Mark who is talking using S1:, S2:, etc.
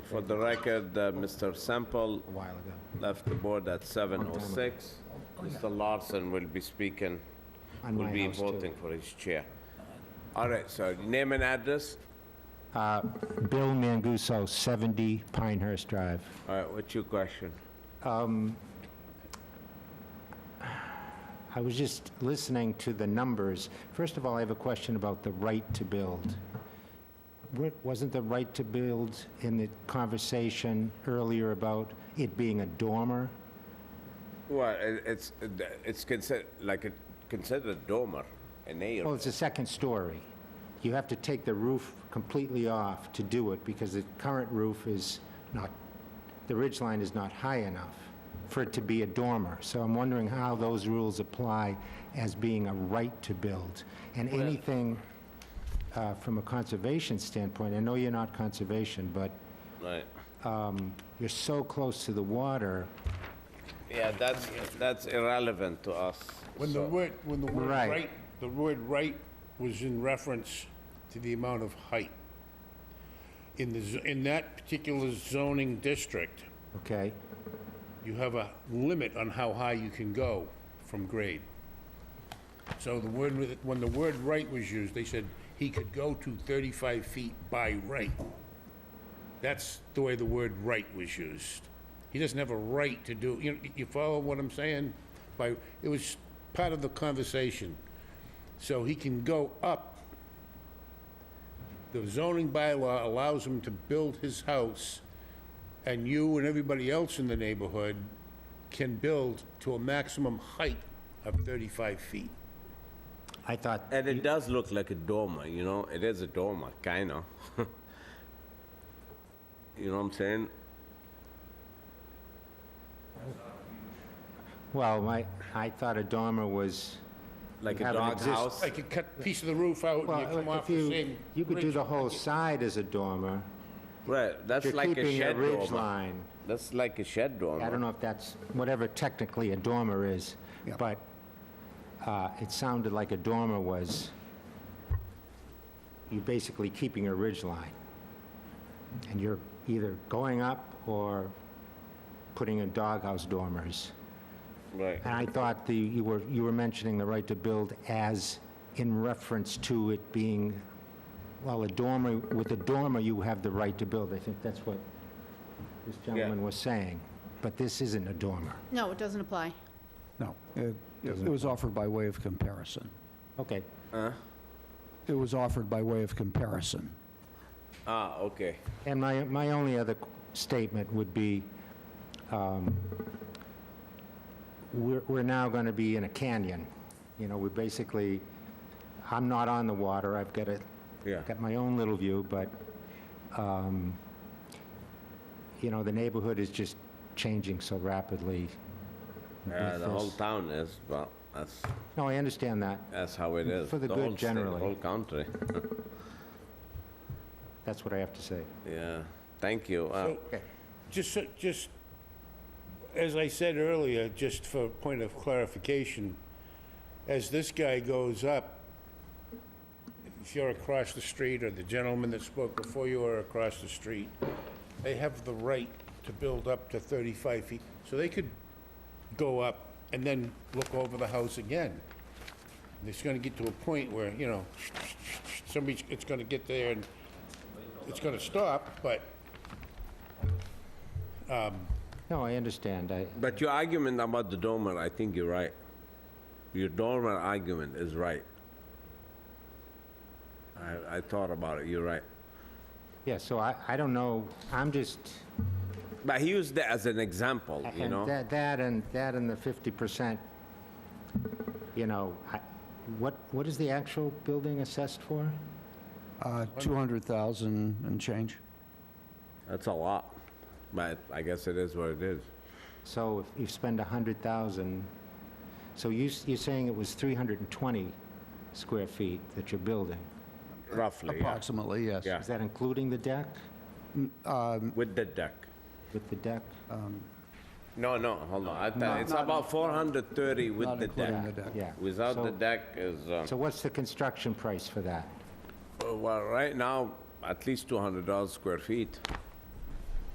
S1: For the record, uh, Mr. Sample
S2: a while ago.
S1: left the board at 7:06. Mr. Larson will be speaking,
S2: On
S1: will
S2: my
S1: be
S2: house, too.
S1: voting for his chair. All right, so name and address.
S2: Uh, Bill Manguso, 70 Pinehurst Drive.
S1: All right, what's your question?
S2: I was just listening to the numbers. First of all, I have a question about the right to build. Wa- Wasn't the right to build in the conversation earlier about it being a dormer?
S1: Well, it- it's, it's considered, like, a- considered dormer, an area.
S2: Well, it's a second story. You have to take the roof completely off to do it because the current roof is not, the ridge line is not high enough for it to be a dormer. So I'm wondering how those rules apply as being a right to build. And anything uh, from a conservation standpoint, I know you're not conservation, but
S1: Right.
S2: you're so close to the water.
S1: Yeah, that's, that's irrelevant to us.
S3: When the
S1: so-
S3: word, when the word
S2: Right.
S3: right, the word right was in reference to the amount of height. In the, z- in that particular zoning district,
S2: Okay,
S3: you have a limit on how high you can go from grade. So the word, with- when the word right was used, they said he could go to 35 feet by right. That's the way the word right was used. He doesn't have a right to do, you, you follow what I'm saying? By, it was part of the conversation. So he can go up. The zoning bylaw allows him to build his house and you and everybody else in the neighborhood can build to a maximum height of 35 feet.
S2: I thought,
S1: And it does look like a dormer, you know, it is a dormer, kinda. You know what I'm saying?
S2: well, my, I thought a dormer was,
S1: Like a
S2: Have an
S1: dog
S2: exist-
S1: house.
S3: Like you cut a piece of the roof out and you come
S2: well,
S3: off
S2: if
S3: the
S2: you,
S3: same.
S2: you could do
S3: ridge.
S2: the whole side as a dormer.
S1: Right, that's
S2: You're
S1: like a
S2: keeping a
S1: shed
S2: ridge
S1: dormer.
S2: line.
S1: That's like a shed
S2: I don't
S1: dormer.
S2: know if that's, whatever technically a dormer is, but uh, it sounded like a dormer was, you're basically keeping a ridge line. And you're either going up or putting in doghouse dormers.
S1: Right,
S2: And I thought the, you were, you were mentioning the right to build as in reference to it being, well, a dormer, with a dormer, you have the right to build. I think that's what this gentleman was saying. But this isn't a dormer.
S4: No, it doesn't apply.
S5: No, it, it was offered by way of comparison.
S2: Okay,
S5: It was offered by way of comparison.
S1: ah, okay.
S2: and my, my only other statement would be, um, we're, we're now going to be in a canyon. You know, we're basically, I'm not on the water, I've got a
S1: Yeah,
S2: got my own little view, but, um, you know, the neighborhood is just changing so rapidly.
S1: Yeah, the
S2: with
S1: whole
S2: this.
S1: town is, well, that's,
S2: No, I understand that.
S1: that's how it is.
S2: For the
S1: whole
S2: good
S1: state,
S2: generally.
S1: The whole country,
S2: That's what I have to say.
S1: yeah. Thank you. Uh,
S3: So, Just, so- just, as I said earlier, just for point of clarification, as this guy goes up, if you're across the street or the gentleman that spoke before you are across the street, they have the right to build up to 35 feet. So they could go up and then look over the house again. And It's gonna get to a point where, you know, somebody's, it's gonna get there and it's gonna stop, but
S2: No, I understand. I,
S1: But your argument about the dormer, I think you're right. Your dormer argument is right. I, I thought about it, you're right.
S2: yeah, so I, I don't know, I'm just,
S1: But he used that as an example, you
S2: and
S1: know?
S2: that, that and, that and the 50%, you know, I, what, what is the actual building assessed for?
S5: Uh, 200,000 and change.
S1: That's a lot, but I guess it is what it is.
S2: So if you spend 100,000, so you, s- you're saying it was 320 square feet that you're building?
S1: Roughly, yeah.
S5: Approximately, yes.
S1: Yeah.
S2: Is that including the deck,
S1: with the deck.
S2: with the deck?
S1: No, no, hold on, I tell you, it's about 430 with
S5: Not
S1: the
S5: including
S1: deck.
S5: the deck.
S2: Yeah.
S1: Without the
S2: So-
S1: deck is, um,
S2: So what's the construction price for that?
S1: well, right now, at least $200 square feet.